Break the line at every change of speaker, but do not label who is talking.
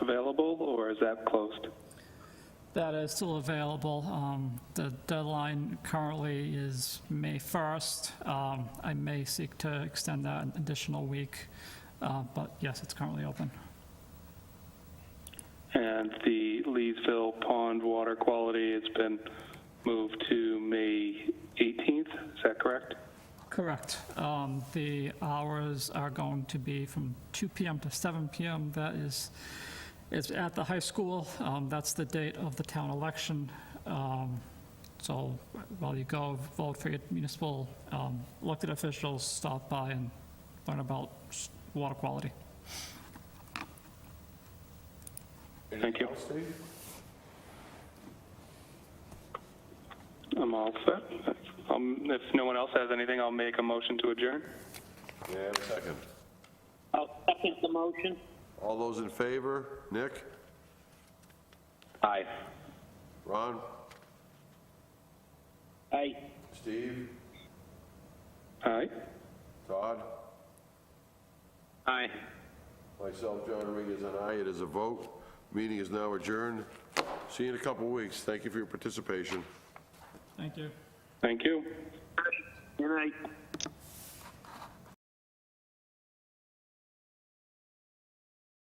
available, or is that closed?
That is still available. Um, The deadline currently is May 1st. Um, I may seek to extend that an additional week, uh, but yes, it's currently open.
And the Leesville Pond water quality has been moved to May 18th, is that correct?
Correct. Um, The hours are going to be from 2 PM to 7 PM. That is, it's at the high school. Um, That's the date of the town election. Um, So while you go vote for your municipal um, elected officials, stop by and learn about s- water quality.
Thank you.
Anything else, Dave?
I'm all set. Um, If no one else has anything, I'll make a motion to adjourn.
May I have a second?
I'll second the motion.
All those in favor? Nick?
Aye.
Ron?
Aye.
Steve?
Aye?
Todd?
Aye.
Myself, John Dominguez, and I. It is a vote. Meeting is now adjourned. See you in a couple weeks. Thank you for your participation.
Thank you.
Thank you.
Good night.